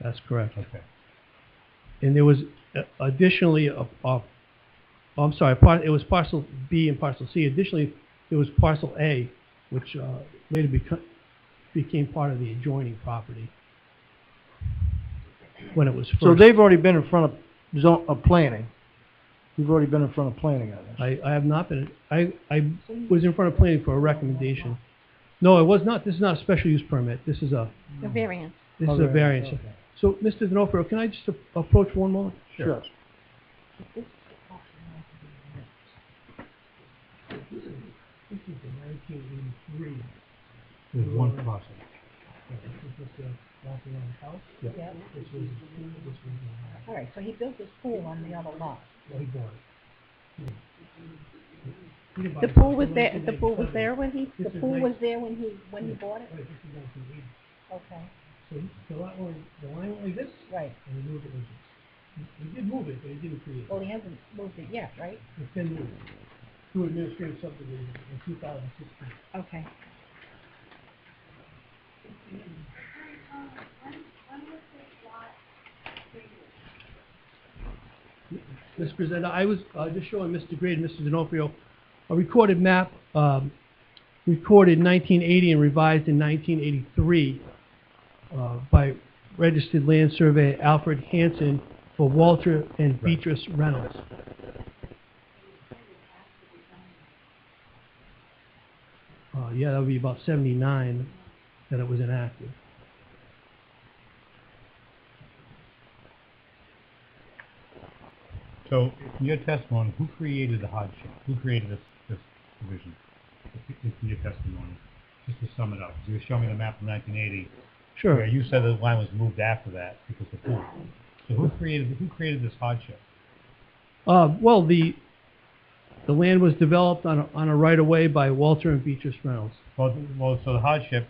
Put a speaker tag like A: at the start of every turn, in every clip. A: That's correct.
B: Okay.
A: And there was uh, additionally, a- a- oh, I'm sorry, par- it was parcel B and parcel C. Additionally, there was parcel A, which uh, later become- became part of the adjoining property when it was first.
C: So they've already been in front of zone, of planning. You've already been in front of planning on this.
A: I, I have not been, I, I was in front of planning for a recommendation. No, it was not, this is not a special use permit, this is a,
D: The variance.
A: this is
C: Okay,
A: a variance.
C: okay.
A: So, Mr. Denofrio, can I just a- approach one moment?
C: Sure.
B: There's one parcel.
E: Yeah. All right, so he built his pool on the other lot.
D: The pool was there, the pool was there when he,
E: The pool was there when he, when he bought it? Okay,
F: So the lot line, the line went like this,
E: right.
F: and he moved it like this. He- He did move it, but he didn't create it.
E: Well, he hasn't moved it yet, right?
F: It's been moved. Through administrative subdivision in two thousand sixteen.
E: Okay.
A: Mr. Presenter, I was uh, just showing Mr. Gray and Mr. D'Onofrio a recorded map, um, recorded 1980 and revised in 1983 uh, by registered land surveyor Alfred Hanson for Walter and Beatrice Reynolds. Uh, Yeah, that would be about 79 that it was enacted.
B: So, in your testimony, who created the hardship? Who created this, this division? If- if In your testimony, just to sum it up, you were showing me the map from nineteen eighty,
A: Sure.
B: where you said the line was moved after that because of the pool. So who created, who created this hardship?
A: Uh, well, the, the land was developed on a, on a right-of-way by Walter and Beatrice Reynolds.
B: Well, th- well, so the hardship,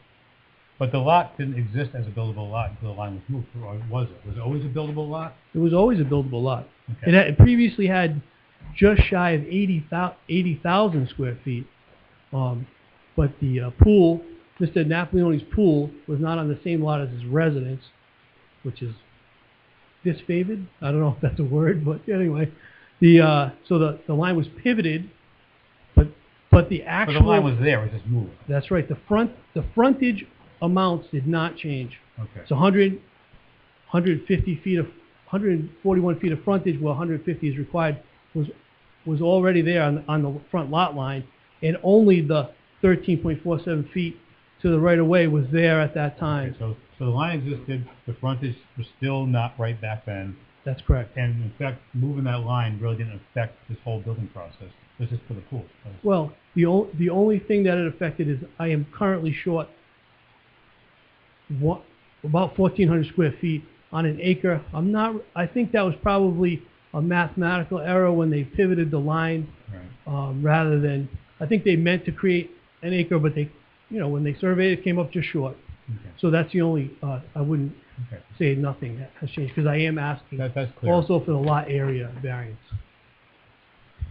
B: but the lot didn't exist as a buildable lot until the line was moved, or was it? Was it always a buildable lot?
A: It was always a buildable lot.
B: Okay.
A: It had it previously had just shy of 80,000 80,000 square feet, um, but the uh, pool, Mr. Napoleone's pool, was not on the same lot as his residence, which is disfavored. I don't know if that's a word, but anyway, the uh, so the, the line was pivoted, but but the
B: But
A: actual
B: the line was there, it just moved.
A: That's right. The front, the frontage amounts did not change.
B: Okay.
A: It's 100, 150 feet of, 141 feet of frontage where 150 is required was, was already there on, on the front lot line, and only the 13.47 feet to the right of way was there at that
B: Okay,
A: time.
B: So, so the line existed, the frontage was still not right back then,
A: That's correct.
B: and in fact, moving that line really didn't affect this whole building process. This is for the pool.
A: Well, the, o- the only thing that it affected is I am currently short what, about 1,400 square feet on an acre. I'm not, I think that was probably a mathematical error when they pivoted the line
B: Right.
A: um, rather than, I think they meant to create an acre, but they, you know, when they surveyed, it came up just short.
B: Okay.
A: So that's the only, uh, I wouldn't
B: Okay.
A: say nothing has changed, because I am asking
B: That, that's clear.
A: also for the lot area variance.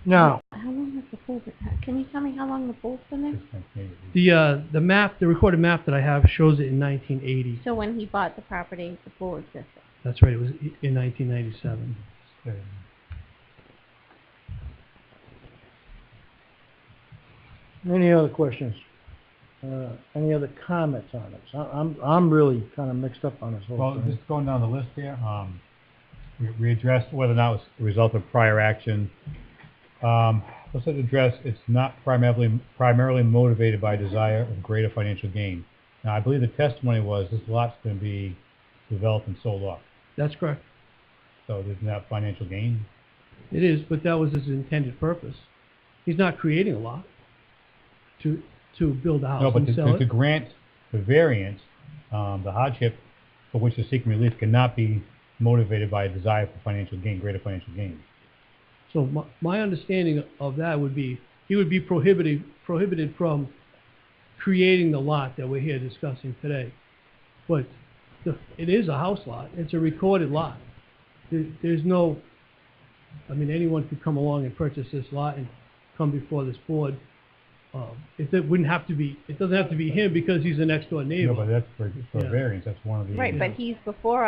C: Now,
D: How long has the pool been, can you tell me how long the pool's been there?
B: Just like maybe-
A: The, uh, the map, the recorded map that I have shows it in 1980.
D: So when he bought the property, the pool existed.
A: That's right, it was i- in 1997.
C: any other questions? Uh, any other comments on this? I- I'm, I'm really kind of mixed up on this
B: Well,
C: whole thing.
B: just going down the list here, um, we, we addressed whether or not it was a result of prior action. Um, let's address it's not primarily, primarily motivated by desire of greater financial gain. Now, I believe the testimony was this lot's going to be developed and sold off.
A: That's correct.
B: So isn't that financial gain?
A: It is, but that was his intended purpose. He's not creating a lot to, to build a
B: No,
A: house
B: but
A: and
B: to,
A: sell
B: to, to
A: it.
B: grant the variance, um, the hardship for which they're seeking relief cannot be motivated by a desire for financial gain, greater financial gain.
A: So my, my understanding of that would be, he would be prohibited, prohibited from creating the lot that we're here discussing today. But the, it is a house lot, it's a recorded lot. There, there's no, I mean, anyone could come along and purchase this lot and come before this board. Um, It it wouldn't have to be, it doesn't have to be him because he's the next door
B: No,
A: neighbor.
B: but that's for, for
A: Yeah.
B: variance, that's one of the.
D: Right, but he's before